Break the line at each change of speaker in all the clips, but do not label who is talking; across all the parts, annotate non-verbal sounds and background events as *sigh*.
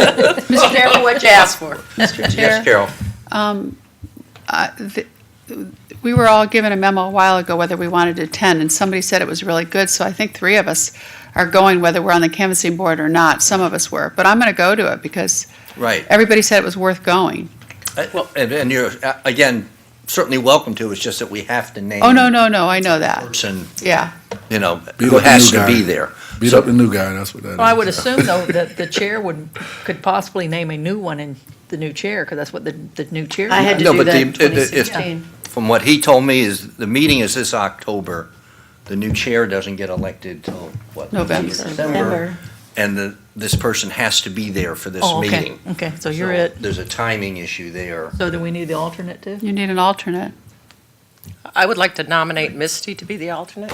Mr. Chairman, what you
*laughs*
asked for.
Mr.
Chair.
Yes, Carol.
Uh, th- We were all given a memo a while ago whether we wanted to attend, and somebody said it was really good, so I think three of us are going whether we're on the canvassing board or not. Some of us were, but I'm going to go to it because
Right.
everybody said it was worth going.
Uh, Well, and- and you're, uh, again, certainly welcome to, it's just that we have to name.
Oh, no, no, no, I know that.
Person,
Yeah.
you know,
Beat
who
up the
has
new
to
guy.
be there.
Beat
So-
up the new guy, that's what that is.
Well, I would assume, though, that the chair would, could possibly name a new one in the new chair, because that's what the, the new chair.
I had to
No,
do
but
that
the-
in
it- it- it's-
2016.
From what he told me is, the meeting is this October. The new chair doesn't get elected till, what?
November.
November.
And the, this person has to be there for this
Oh, okay.
meeting.
Okay, so you're it.
There's a timing issue there.
So do we need the alternate too?
You need an alternate.
I would like to nominate Misty to be the alternate.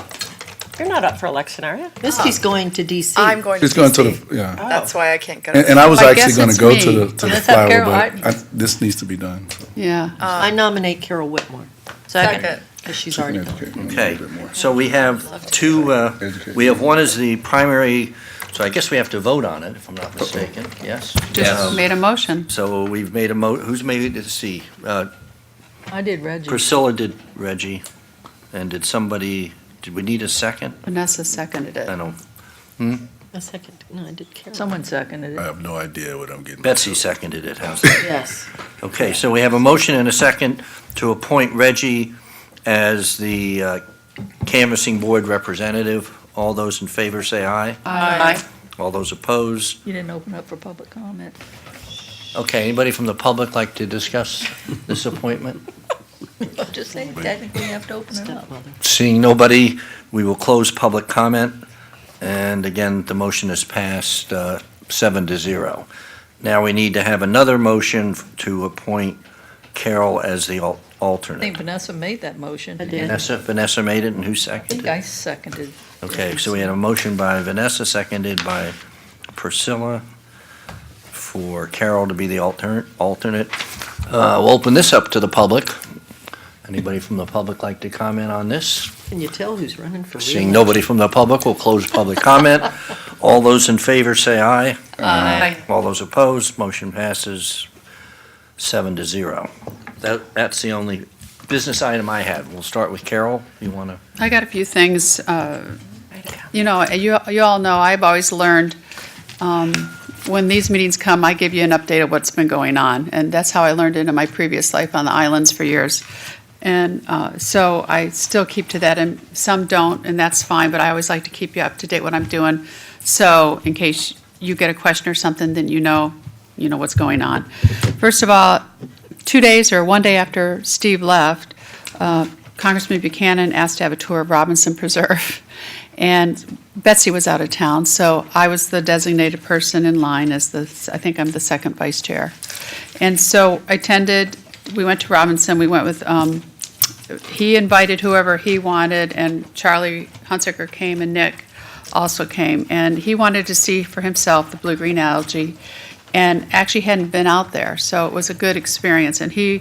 You're not up for election, are you?
Misty's going to DC.
*laughs* I'm going to
It's going to
DC.
the, yeah.
That's why I can't go to
And, and I was
I
actually
guess
gonna
it's
go
me.
to the, to the
Let's have Carol.
flyover, but I- this needs to be done.
Um,
Yeah.
I nominate Carol Whitmore. Second.
Second.
Because she's
She can
already gone.
educate me a
Okay,
little bit more.
so we have two, uh,
Educate.
we have one is the primary, so I guess we have to vote on it, if I'm not mistaken, yes?
Just
Um,
made a motion.
So we've made a mo, who's made it, let's see, uh,
I did Reggie.
Priscilla did Reggie, and did somebody, did we need a second?
Vanessa seconded
I
it.
don't,
A second, no, I did Carol.
Someone seconded
I
it.
have no idea what I'm getting.
Betsy seconded it, how's
*laughs*
that?
Yes.
Okay, so we have a motion and a second to appoint Reggie as the uh, canvassing board representative. All those in favor say aye.
Aye.
All those opposed?
You didn't open up for public comment.
Okay, anybody from the public like to discuss this appointment?
Just saying, technically you have to open it up.
Seeing nobody, we will close public comment. And again, the motion is passed uh, seven to zero. Now we need to have another motion to appoint Carol as the al-
I think
alternate.
Vanessa made that motion.
I did.
and I
Vanessa, Vanessa made it, and who
think
seconded it?
I seconded.
Okay, so we had a motion by Vanessa, seconded by Priscilla, for Carol to be the alter- alternate. Uh, We'll open this up to the public. Anybody from the public like to comment on this?
Can you tell who's running for
Seeing
reelection?
nobody from the public, we'll close public comment. All those in favor say aye. Aye. All those opposed, motion passes seven to zero. That, that's the only business item I had. We'll start with Carol. You want to?
I got a few things. uh, You know, you, you all know, I've always learned, um, when these meetings come, I give you an update of what's been going on. And that's how I learned it in my previous life on the islands for years. And uh, so I still keep to that, and some don't, and that's fine, but I always like to keep you up to date what I'm doing. So in case you get a question or something, then you know, you know what's going on. First of all, two days or one day after Steve left, uh, Congressman Buchanan asked to have a tour of Robinson Preserve. And Betsy was out of town, so I was the designated person in line as the, I think I'm the second vice chair. And so I attended, we went to Robinson, we went with, um, he invited whoever he wanted, and Charlie Hunsaker came and Nick also came. And he wanted to see for himself the blue-green algae, and actually hadn't been out there, so it was a good experience. And he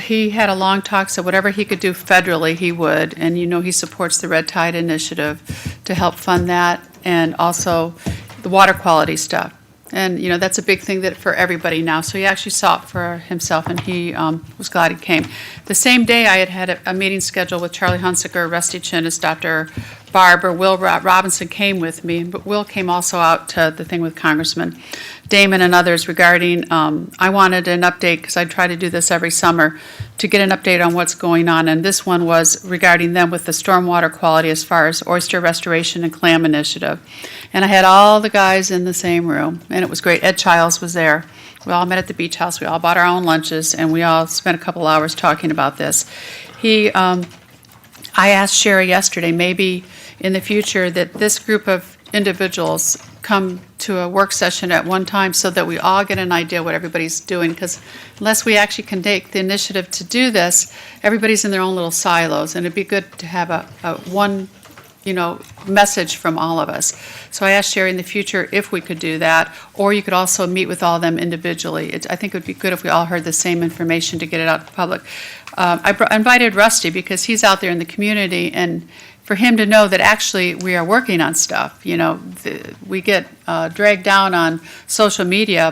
he had a long talk, so whatever he could do federally, he would. And you know, he supports the Red Tide Initiative to help fund that and also the water quality stuff. And, you know, that's a big thing that, for everybody now. So he actually saw it for himself and he um, was glad he came. The same day, I had had a, a meeting scheduled with Charlie Hunsaker, Rusty Chinnis, Dr. Barber, Will Ro- Robinson came with me, but Will came also out to the thing with Congressman Damon and others regarding, um, I wanted an update, because I try to do this every summer, to get an update on what's going on, and this one was regarding them with the stormwater quality as far as oyster restoration and clam initiative. And I had all the guys in the same room, and it was great. Ed Childs was there. We all met at the beach house, we all bought our own lunches, and we all spent a couple hours talking about this. He, um, I asked Sherry yesterday, maybe in the future, that this group of individuals come to a work session at one time so that we all get an idea what everybody's doing, because unless we actually can take the initiative to do this, everybody's in their own little silos, and it'd be good to have a, a one you know, message from all of us. So I asked Sherry in the future if we could do that, or you could also meet with all of them individually. It, I think it would be good if we all heard the same information to get it out to the public. Um, I br- invited Rusty because he's out there in the community and for him to know that actually we are working on stuff, you know, the- we get uh, dragged down on social media